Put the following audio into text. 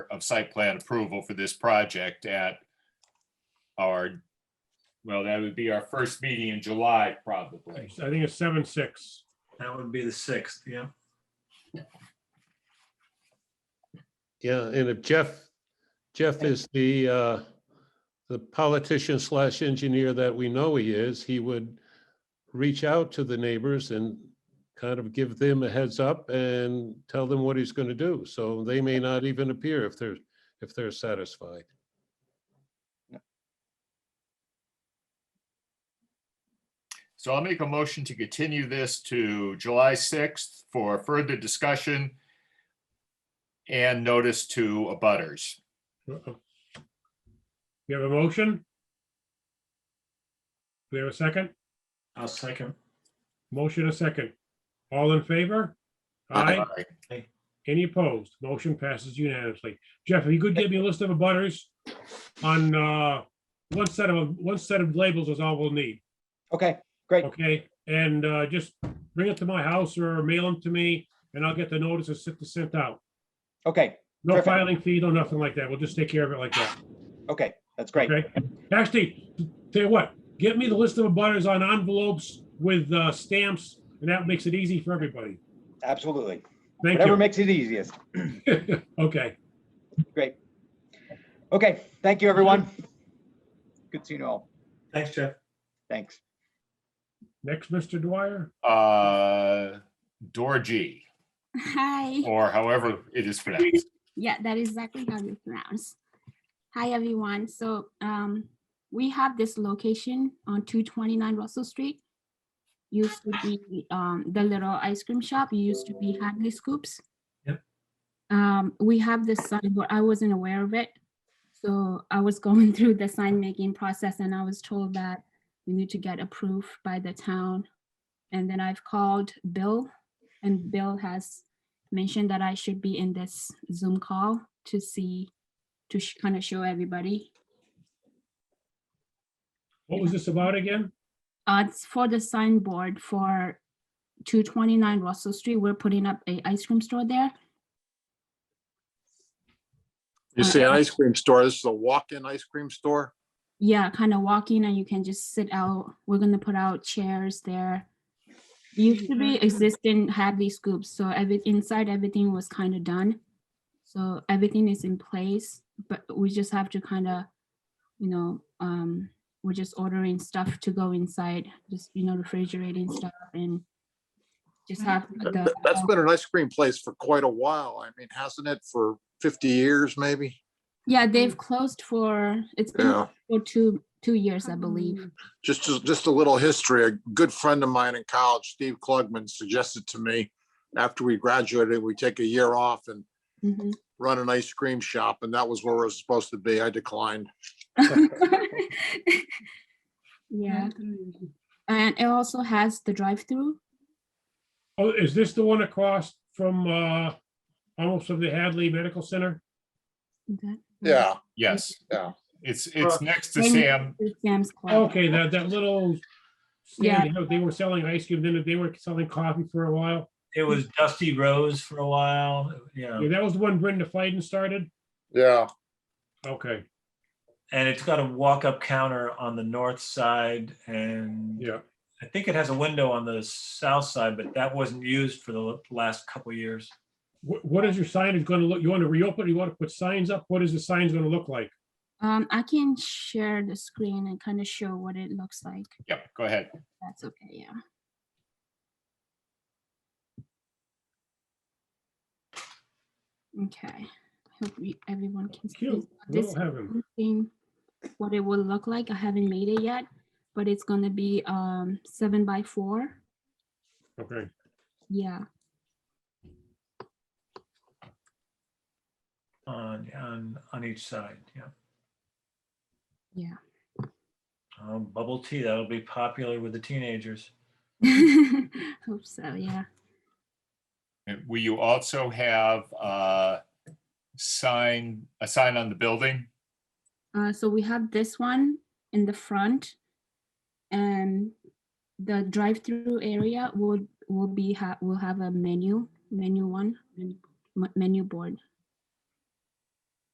of site plan approval for this project at our, well, that would be our first meeting in July, I probably. think it's seven, six. That would be the sixth, yeah. Yeah, and if Jeff, Jeff is the, uh, the politician slash engineer that we know he is, he would reach out to the neighbors and kind of give them a heads up and tell them what he's going to do. So they may not even appear if they're, if they're satisfied. So I'll make a motion to continue this to July 6th for further discussion and notice to abutters. Uh-oh. We have a motion? We have a second? I'll second. Motion a second. All in favor? Aye. Any opposed? Motion passes unanimously. Jeff, if you could give me a list of abutters on, uh, one set of, one set of labels is all we'll need. Okay, great. Okay, and uh, just bring it to my house or mail them to me and I'll get the notices sent- sent out. Okay, No Perfect. filing fee, no nothing like that. We'll just take care of it like that. okay, that's great. Okay. Actually, tell you what, get me the list of abutters on envelopes with uh, stamps and that makes it easy for everybody. Absolutely. Thank Whatever you. makes it easiest. Okay, Great. Okay, thank you, everyone. Good seeing you all. Thanks, Jeff. Thanks. next, Mr. Dwyer. Uh, Dorji, Hi. or however it is pronounced. Yeah, that is exactly how you pronounce. Hi, everyone. So um, we have this location on 229 Russell Street. Used to be um, the little ice cream shop. Used to be Hadley Scoops. Yep. Um, we have this signboard. I wasn't aware of it. So I was going through the sign making process and I was told that we need to get approved by the town. And then I've called Bill and Bill has mentioned that I should be in this Zoom call to see, to kind of show everybody. What was this about again? Uh, it's for the signboard for two twenty-nine Russell Street. We're putting up a ice cream store there. You say an ice cream store, this is a walk-in ice cream store? Yeah, kind of walking and you can just sit out. We're gonna put out chairs there. Used to Mm-hmm. be existing Hadley scoops, so every, inside everything was kind of done. So everything is in place, but we just have to kind of, you know, um, we're just ordering stuff to go inside, just, you know, refrigerating stuff and just have That- the. um, that- That's been an ice cream place for quite a while. I mean, hasn't it for fifty years, maybe? Yeah, they've closed for, it's been Mm. Yeah, Mm. for two, two years, I believe. just, just- just a little history. A good friend of mine in college, Steve Klugman, suggested to me after we graduated, we take a year off and Mhm. run an ice cream shop, and that was where it was supposed to be. I declined. Yeah, and it also has the drive-through. Oh, is this the one across from, uh, almost from the Hadley Medical Center? that- Yeah, Yes. Yeah. It's, it's next to Same- Sam, Sam's Club. Okay, that, that little Yeah. stand, you know, they were selling ice cream, then they were selling coffee for a while. It was Dusty Rose for a while, yeah, Yeah, that was the one Brenda Fiden started. yeah. Okay, and it's got a walk-up counter on the north side, and yeah. I think it has a window on the south side, but that wasn't used for the last couple years. What, what is your signage gonna look, you wanna reopen, you wanna put signs up, what is the signs gonna look like? Um, I can share the screen and kind of show what it looks like. yep, go ahead. That's okay, yeah. Okay, hope we, everyone can see Cute, this we'll have him. thing, what it will look like. I haven't made it yet, but it's gonna be, um, seven by four. Okay, Yeah, on, on, on each side, yeah. Yeah. Um, bubble tea, that'll be popular with the teenagers. hope so, yeah. And Will you also have a sign, a sign on the building? Uh, so we have this one in the front. And the drive-through area would, will be, ha- will have a menu, menu one, menu- m- menu board.